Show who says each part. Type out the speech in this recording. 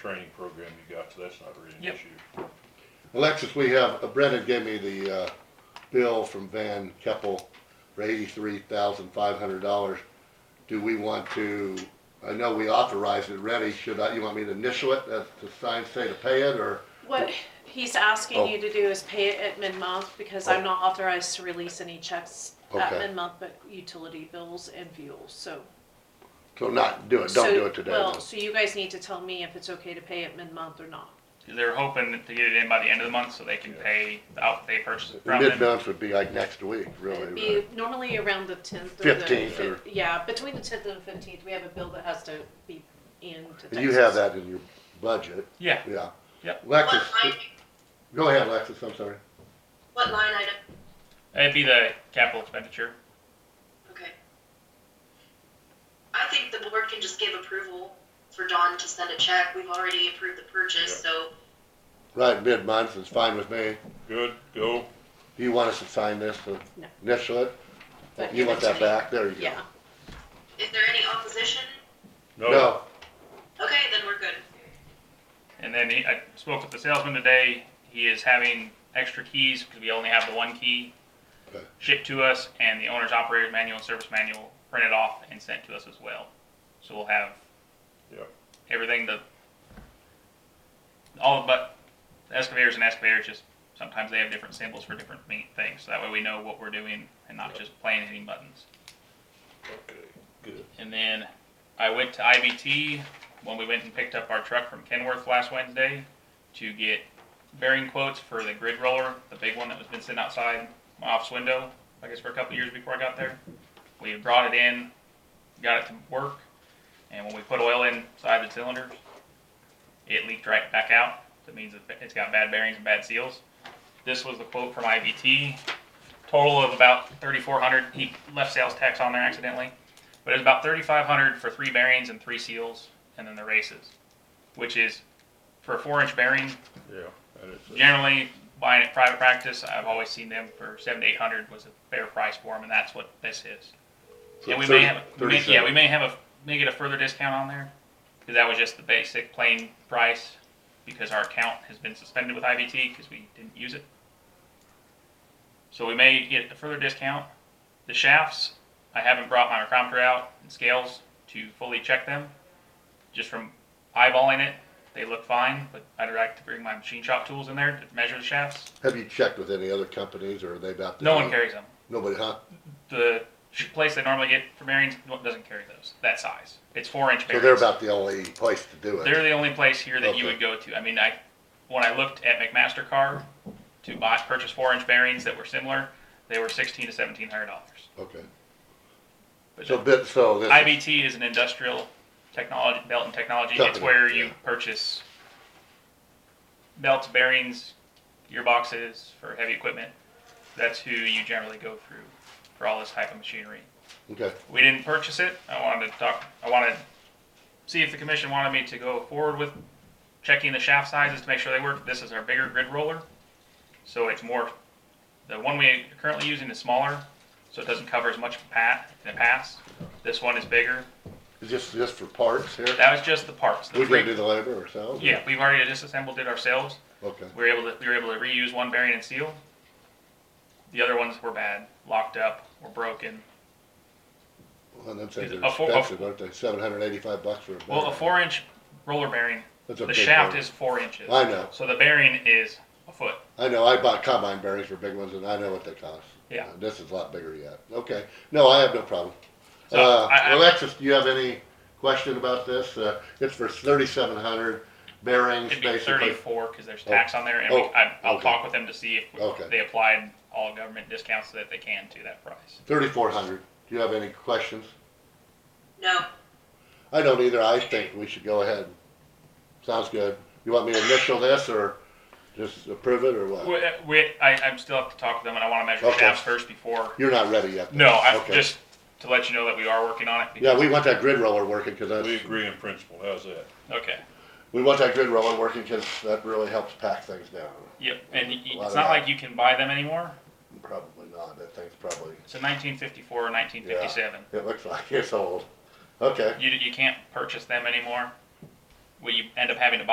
Speaker 1: training program you got, so that's not really an
Speaker 2: Yep.
Speaker 1: issue.
Speaker 3: Alexis, we have, uh, Brendan gave me the, uh, bill from Van Keppel for eighty-three thousand five hundred dollars. Do we want to, I know we authorized it ready, should I, you want me to initial it, uh, to sign, say to pay it, or?
Speaker 4: What he's
Speaker 3: Oh.
Speaker 4: asking you to do is pay it at mid-month because I'm not authorized to release any checks at
Speaker 3: Okay.
Speaker 4: mid-month, but utility bills and fuels, so.
Speaker 3: So not do it, don't
Speaker 4: so-
Speaker 3: do it today.
Speaker 4: Well,
Speaker 3: then.
Speaker 4: so you guys need to tell me if it's okay to pay it mid-month or not.
Speaker 2: They're hoping to get it in by the end of the month so they can pay the out they purchased it from them.
Speaker 3: Mid-month would be like next week,
Speaker 4: It'd
Speaker 3: really,
Speaker 4: be
Speaker 3: right?
Speaker 4: normally around the tenth or the.
Speaker 3: 15th or-
Speaker 4: fif- Yeah, between the tenth and the fifteenth, we have a bill that has to be in to Texas.
Speaker 3: And You have that in your budget,
Speaker 2: Yeah,
Speaker 3: yeah.
Speaker 2: Yep.
Speaker 3: Alexis,
Speaker 5: What line,
Speaker 3: go ahead, Alexis, I'm sorry.
Speaker 5: what line item?
Speaker 2: it'd be the capital expenditure.
Speaker 5: Okay. I think the board can just give approval for Dawn to send a check. We've already approved the purchase, so
Speaker 3: Right, mid-month is fine with me.
Speaker 1: Good, go.
Speaker 3: Do you want us to sign this, to
Speaker 4: No.
Speaker 3: initial it?
Speaker 4: But
Speaker 3: You
Speaker 4: give
Speaker 3: want
Speaker 4: it to
Speaker 3: that
Speaker 4: me.
Speaker 3: back? There you go.
Speaker 4: Yeah,
Speaker 5: is there any opposition?
Speaker 3: No,
Speaker 5: Okay, then we're good.
Speaker 2: And then he, I spoke with the salesman today. He is having extra keys because we only have the one key
Speaker 3: Okay.
Speaker 2: shipped to us, and the owner's operator's manual and service manual printed off and sent to us as well. So we'll have
Speaker 1: Yep.
Speaker 2: everything the all but the excavators and excavators just sometimes they have different symbols for different me- things. So that way we know what we're doing and not
Speaker 1: Yep.
Speaker 2: just playing hitting buttons.
Speaker 1: Okay, good.
Speaker 2: And then I went to IBT when we went and picked up our truck from Kenworth last Wednesday to get bearing quotes for the grid roller, the big one that was been sitting outside my office window, I guess for a couple of years before I got there. We had brought it in, got it to work, and when we put oil inside the cylinders, it leaked right back out. That means it- it's got bad bearings and bad seals. This was the quote from IBT. Total of about 3,400. He left sales tax on there accidentally. But it was about thirty-five hundred for three bearings and three seals, and then the races, which is for a four-inch bearing.
Speaker 1: Yeah, and it's, uh,
Speaker 2: Generally, buying at private practice, I've always seen them for seven to eight hundred was a fair price for them, and that's what this is.
Speaker 3: So
Speaker 2: Yeah, we
Speaker 3: 30
Speaker 2: may have, we may- yeah,
Speaker 3: 37.
Speaker 2: we may have a may get a further discount on there, because that was just the basic plain price, because our account has been suspended with IBT because we didn't use it. So we may get a further discount. The shafts, I haven't brought my micrometer out and scales to fully check them. Just from eyeballing it, they look fine, but I'd like to bring my machine shop tools in there to measure the shafts.
Speaker 3: have you checked with any other companies, or are they about? to-
Speaker 2: No one carries them.
Speaker 3: Nobody, huh?
Speaker 2: The sh- place they normally get for bearings doesn't carry those, that size. It's four inch
Speaker 3: So
Speaker 2: bearings.
Speaker 3: they're about the only place to do
Speaker 2: They're
Speaker 3: it.
Speaker 2: the only place here that
Speaker 3: Okay.
Speaker 2: you would go to. I mean, I when I looked at McMaster Car to buy purchase four inch bearings that were similar, they were sixteen to seventeen hundred dollars.
Speaker 3: Okay,
Speaker 2: But
Speaker 3: so bit, so this. is-
Speaker 2: IBT is an industrial technology belt and technology. it's
Speaker 3: Company,
Speaker 2: where you
Speaker 3: yeah.
Speaker 2: purchase belts, bearings, gearboxes for heavy equipment. That's who you generally go through for all this type of machinery.
Speaker 3: Okay,
Speaker 2: We didn't purchase it. I wanted to talk, I wanted, to see if the commission wanted me to go forward with checking the shaft sizes to make sure they work. This is our bigger grid roller. So it's more, the one we are currently using is smaller, so it doesn't cover as much pat in the pass. This one is bigger.
Speaker 3: Is this just for parts here?
Speaker 2: That was just the parts. The
Speaker 3: We
Speaker 2: three-
Speaker 3: can do the labor ourselves?
Speaker 2: Yeah, we've already disassembled it ourselves.
Speaker 3: Okay,
Speaker 2: We were able to, we were able to reuse one bearing and seal. The other ones were bad, locked up, or broken.
Speaker 3: well, them things are
Speaker 2: A four- a-
Speaker 3: expensive, aren't they? Seven hundred eighty-five bucks for a.
Speaker 2: Well, a
Speaker 3: bearing.
Speaker 2: four inch roller bearing
Speaker 3: That's a
Speaker 2: The
Speaker 3: big
Speaker 2: shaft
Speaker 3: bearing.
Speaker 2: is four inches.
Speaker 3: I know.
Speaker 2: So the bearing is a foot.
Speaker 3: I know, I bought combine bearings for big ones, and I know what they cost.
Speaker 2: Yeah.
Speaker 3: Uh, This is a lot bigger yet. Okay, no, I have no problem.
Speaker 2: So
Speaker 3: Uh,
Speaker 2: I- I-
Speaker 3: Alexis, do you have any question about this? Uh, it's for thirty-seven hundred bearings,
Speaker 2: It'd be
Speaker 3: basically.
Speaker 2: thirty-four because there's tax on there, and
Speaker 3: Oh,
Speaker 2: we, I, I'll
Speaker 3: okay.
Speaker 2: talk with them to see if
Speaker 3: Okay.
Speaker 2: they applied all government discounts that they can to that price.
Speaker 3: Thirty-four hundred. Do you have any questions?
Speaker 5: No.
Speaker 3: I don't either. I think we should go ahead. Sounds good. You want me to initial this or just approve it or
Speaker 2: We,
Speaker 3: what?
Speaker 2: we, I, I'm still have to talk to them, and I want to measure
Speaker 3: Okay.
Speaker 2: shafts first before.
Speaker 3: You're not ready yet.
Speaker 2: No, I
Speaker 3: Okay.
Speaker 2: just to let you know that we are working on it.
Speaker 3: Yeah, we want that grid roller working because
Speaker 1: we
Speaker 3: that's,
Speaker 1: agree in principle, how's that?
Speaker 2: Okay.
Speaker 3: we want that grid roller working because that really helps pack things down.
Speaker 2: Yep. And y-
Speaker 3: A
Speaker 2: y-
Speaker 3: lot
Speaker 2: it's
Speaker 3: of
Speaker 2: not
Speaker 3: that.
Speaker 2: like you can buy them anymore.
Speaker 3: Probably not. That thing's probably,
Speaker 2: It's a 1954 or 1957.
Speaker 3: it looks like it's old. Okay.
Speaker 2: You you can't purchase them anymore. Well, you end up having to buy